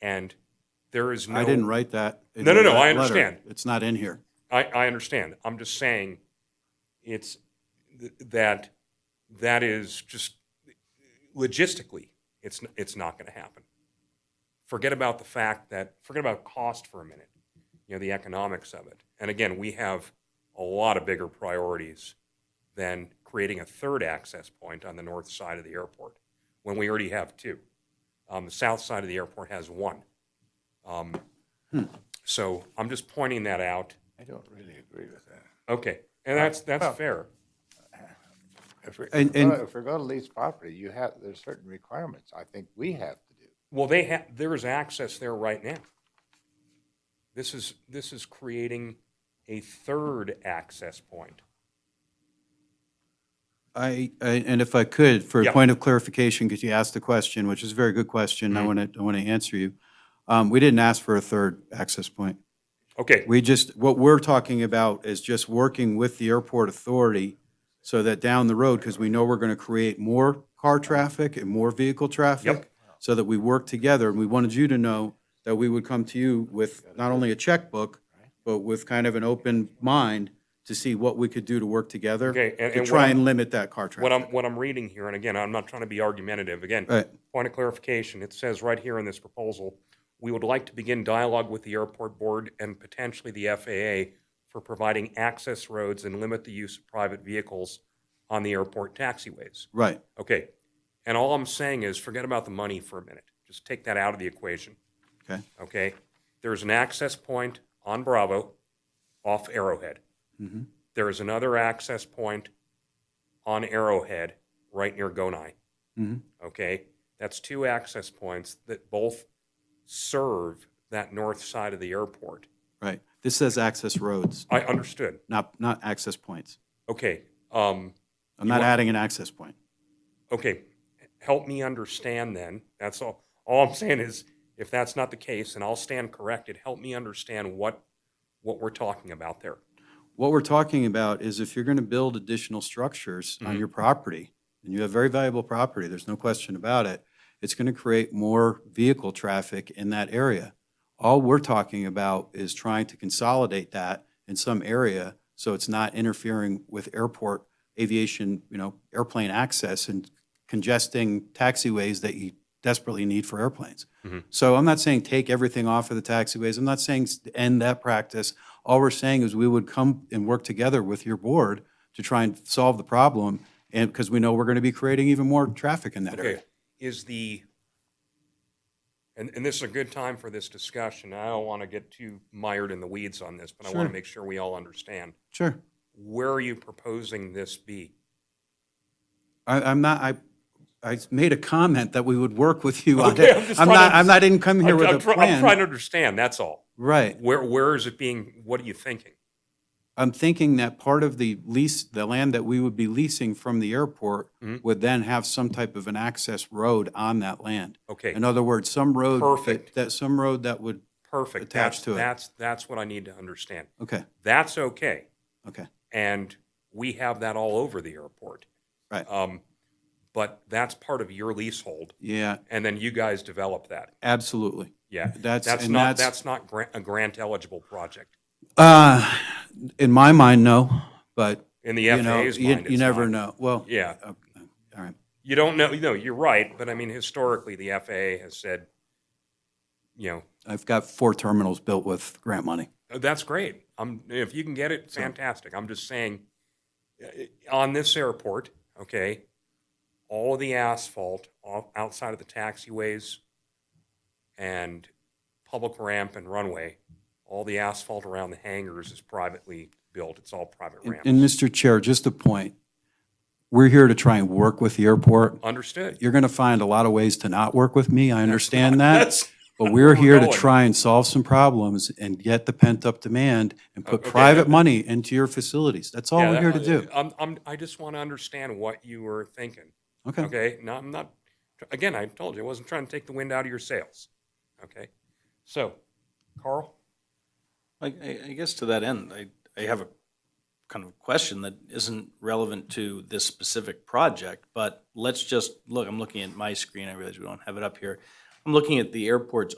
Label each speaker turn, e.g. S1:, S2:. S1: And there is no.
S2: I didn't write that. in
S1: No, no, no,
S2: that
S1: I
S2: letter.
S1: understand.
S2: It's not in here.
S1: I, I understand. I'm just saying it's th- that that is just logistically, it's, n- it's not going to happen. Forget about the fact that, forget about cost for a minute, you know, the economics of it. And again, we have a lot of bigger priorities than creating a third access point on the north side of the airport when we already have two. Um, the south side of the airport has one. Um, so I'm just pointing that out.
S3: I don't really agree with that.
S1: Okay, and that's, that's fair.
S3: If we're,
S2: And-
S3: if we're
S2: and-
S3: gonna- if we're gonna lease property, you have, there's certain requirements I think we have to do.
S1: Well, they have, there is access there right now. This is, this is creating a third access point.
S2: I, I- and if I could, for a
S1: Yeah.
S2: point of clarification, because you asked the question, which is a very good question,
S1: Mm-hmm.
S2: I want to, I want to answer you. Um, We didn't ask for a third access point.
S1: Okay,
S2: We just, what we're talking about is just working with the airport authority so that down the road, because we know we're going to create more car traffic and more vehicle traffic, so that we work together. And we wanted you to know that we would come to you with not only a checkbook, but with kind of an open mind to see what we could do to work together
S1: Okay, and- and
S2: to
S1: what
S2: try
S1: I'm-
S2: and limit that car
S1: what I'm,
S2: traffic.
S1: what I'm reading here, and again, I'm not trying to be argumentative, again,
S2: Right.
S1: point of clarification, it says right here in this proposal, we would like to begin dialogue with the airport board and potentially the FAA for providing access roads and limit the use of private vehicles on the airport taxiways.
S2: Right.
S1: Okay, and all I'm saying is, forget about the money for a minute. Just take that out of the equation.
S2: Okay.
S1: Okay, there's an access point on Bravo off Arrowhead.
S2: Mhm.
S1: There is another access point on Arrowhead right near Gonai.
S2: Mhm.
S1: Okay, that's two access points that both serve that north side of the airport.
S2: Right. This says access roads,
S1: I understood.
S2: not, not access points.
S1: Okay, um,
S2: I'm
S1: You
S2: not
S1: want-
S2: adding an access point.
S1: okay, help me understand then. That's all. All I'm saying is, if that's not the case, and I'll stand corrected, help me understand what what we're talking about there.
S2: What we're talking about is if you're going to build additional structures on your property, and you have very valuable property, there's no question about it, it's going to create more vehicle traffic in that area. All we're talking about is trying to consolidate that in some area so it's not interfering with airport aviation, you know, airplane access and congesting taxiways that you desperately need for airplanes. So I'm not saying take everything off of the taxiways. I'm not saying s- end that practice. All we're saying is we would come and work together with your board to try and solve the problem and because we know we're going to be creating even more traffic in that
S1: Okay,
S2: area.
S1: is the and, and this is a good time for this discussion. I don't want to get too mired in the weeds on this, but I want
S2: Sure.
S1: to make sure we all understand.
S2: Sure.
S1: Where are you proposing this be?
S2: I, I'm not, I, I made a comment that we would work with you on
S1: Okay,
S2: it.
S1: I'm just
S2: I'm
S1: trying
S2: not,
S1: to-
S2: I'm not, I didn't come here
S1: I'm,
S2: with
S1: I'm
S2: a
S1: try- I'm trying to
S2: plan.
S1: understand. That's all.
S2: Right.
S1: Where where is it being? What are you thinking?
S2: I'm thinking that part of the lease, the land that we would be leasing from the airport
S1: Mm-hmm.
S2: would then have some type of an access road on that land.
S1: Okay,
S2: In other words, some road. that-
S1: Perfect.
S2: That, some road that would,
S1: perfect. That's,
S2: attached to it.
S1: that's that's what I need to understand.
S2: okay,
S1: That's okay.
S2: okay,
S1: and we have that all over the airport.
S2: Right.
S1: Um, but that's part of your leasehold,
S2: yeah,
S1: and then you guys develop that.
S2: absolutely.
S1: Yeah,
S2: That's-
S1: that's
S2: and
S1: not
S2: that's-
S1: that's not grant, a grant eligible project
S2: Uh, in my mind, no, but,
S1: in the
S2: you know,
S1: FAA's
S2: you,
S1: mind.
S2: you
S1: it's
S2: never
S1: not.
S2: know. Well,
S1: Yeah,
S2: all right,
S1: you don't know. No, you're right, but I mean historically, the FAA has said, you know,
S2: I've got four terminals built with grant money.
S1: "Oh, that's great. I'm if you can get it, fantastic. I'm just saying, uh, on this airport, okay, all of the asphalt off, outside of the taxiways and public ramp and runway, all the asphalt around the hangars is privately built. It's all private
S2: And-
S1: ramps.
S2: And Mr. Chair, just a point. We're here to try and work with the airport.
S1: Understood.
S2: You're going to find a lot of ways to not work with me. I understand that.
S1: That's
S2: But we're here to
S1: going.
S2: try and solve some problems and get the pent-up demand and put
S1: Okay.
S2: private money into your facilities. That's all
S1: yeah,
S2: we're here to
S1: that-
S2: do.
S1: I'm, I'm, I just want to understand what you were thinking.
S2: Okay.
S1: Okay, no, I'm not, again, I told you, I wasn't trying to take the wind out of your sails. Okay, so, Carl?
S4: I, I, I guess to that end, I, I have a kind of question that isn't relevant to this specific project, but let's just, look, I'm looking at my screen, I realize we don't have it up here. I'm looking at the airport's